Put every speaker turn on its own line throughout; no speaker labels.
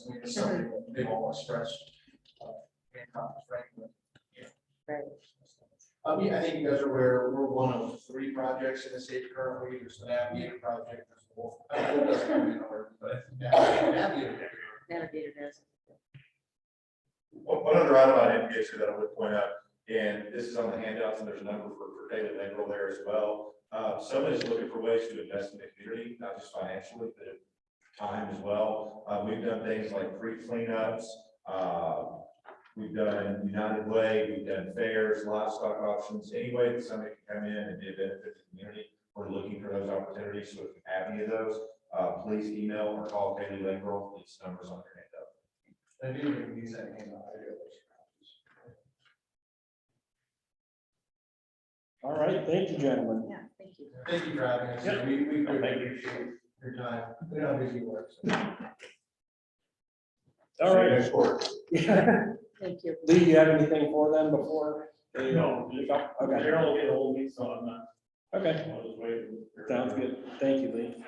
I mean, it's something that they've all expressed. uh, in conference, right, but, yeah.
Right.
Um, yeah, I think you guys are aware, we're one of three projects in the state currently, there's the Navigator project, there's the Wolf. uh, Wolf doesn't come in order, but Nav- Navigator.
Navigator does.
One, one other item I didn't get to that I would point out, and this is on the handouts, and there's a number for, for David Engel there as well. Uh, somebody's looking for ways to invest in the community, not just financially, but in time as well. Uh, we've done things like free cleanups, uh, we've done United Way, we've done fairs, livestock options, any way that somebody can come in and be a benefit to the community. We're looking for those opportunities, so if you have any of those, uh, please email or call David Engel, these numbers on your handout.
I do even use that name. I do.
All right, thank you, gentlemen.
Yeah, thank you.
Thank you for having us,
Yep.
we, we
No,
really
thank you.
appreciate your time, we know how busy you work. so.
All
See you
right.
next quarter.
Thank you.
Lee, you have anything for them before? they-
No.
Okay,
Daryl will get ahold of me, so I'm not,
okay,
I'll just wait.
sounds good. Thank you, Lee.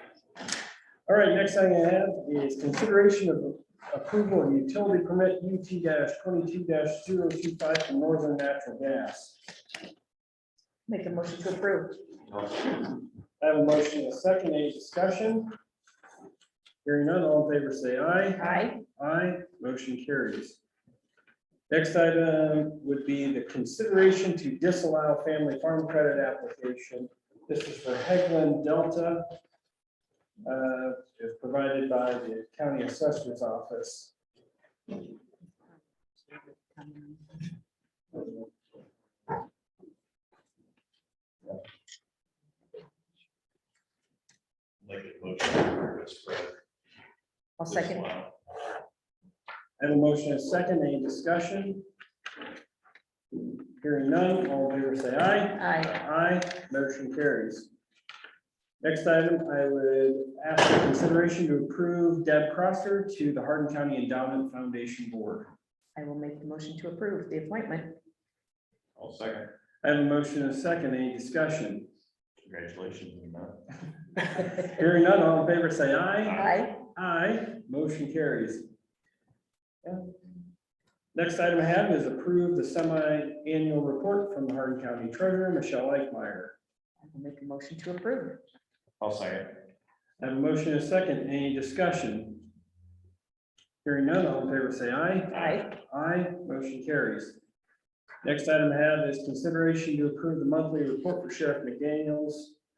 All right, next thing I have is consideration of approval of utility permit UT twenty-two 25 for Northern Natural Gas.
Make a motion to approve.
I have a motion, and a second, any discussion? Hearing none, all in favor, say aye.
Aye.
Aye, motion carries. Next item would be the consideration to disallow family farm credit application. This is for Hegland Delta. uh, It's provided by the county assessor's office.
Like a motion.
I'll second.
I have a motion and a second, any discussion? Hearing none, all in favor say aye.
Aye.
Aye, motion carries. Next item, I would ask for consideration to approve Deb Crosser to the Hardin County Endowment Foundation Board.
I will make the motion to approve the appointment.
I'll second.
I have a motion and a second, any discussion?
Congratulations. you know.
Hearing none, all in favor, say aye.
Aye.
Aye, motion carries. Yeah. Next item I have is approve the semi-annual report from the Hardin County Treasurer, Michelle Eichmeyer.
I will make a motion to approve.
I'll second.
I have a motion and a second, any discussion? Hearing none, all in favor, say aye.
Aye.
Aye, motion carries. Next item I have is consideration to approve the monthly report for Sheriff McDaniels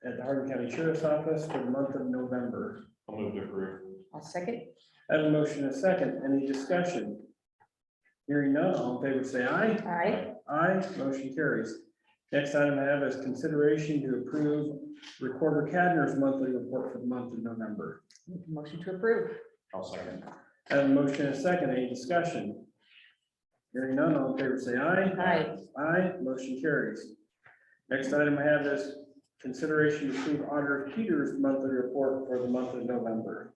at the Hardin County Sheriff's Office for the month of November.
I'll move to approve.
I'll second.
I have a motion and a second. Any discussion? Hearing none, all in favor say aye.
Aye.
Aye, motion carries. Next item I have is consideration to approve Recorder Cadner's monthly report for the month of November.
Make a motion to approve.
I'll second.
I have a motion and a second. Any discussion? Hearing none, all in favor say aye.
Aye.
Aye, motion carries. Next item I have is consideration to approve Auditor Peters' monthly report for the month of November.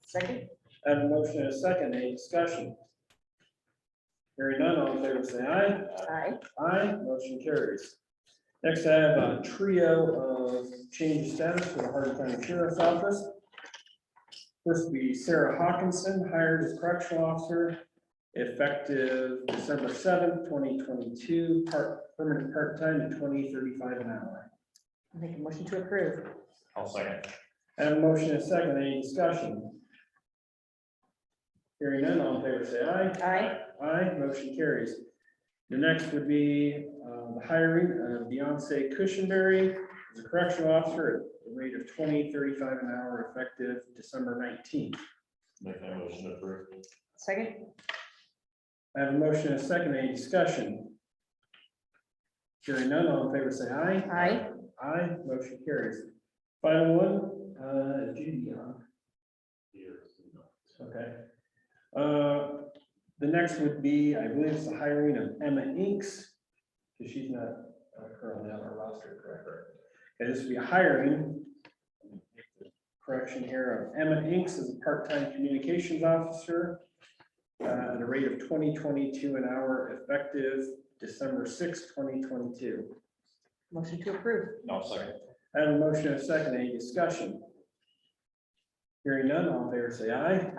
Second.
I have a motion and a second, any discussion? Hearing none, all in favor, say aye.
Aye.
Aye, motion carries. Next, I have a trio of change of status for the Hardin County Sheriff's Office. First would be Sarah Hawkinson, hired as correctional officer, effective December seventh, twenty twenty-two, part, permanent part-time at twenty thirty-five an hour.
Make a motion to approve.
I'll second.
I have a motion and a second, any discussion? Hearing none, all in favor, say aye.
Aye.
Aye, motion carries. The next would be uh, the hiring of Beyonce Cushenberry as a correctional officer at the rate of twenty thirty-five an hour effective December nineteenth.
Make that motion to approve.
Second.
I have a motion and a second, any discussion? Hearing none, all in favor say aye.
Aye.
Aye, motion carries. Final one, uh, Judy, huh? Okay. Uh, The next would be, I believe it's the hiring of Emma Inks, because she's not uh, currently on our roster, correct? Okay, this would be a hiring. Correction here of Emma Inks as a part-time communications officer uh, at a rate of twenty twenty-two an hour effective December sixth, twenty twenty-two.
Motion to approve.
I'll second.
I have a motion and a second, any discussion? Hearing none, all in favor say aye.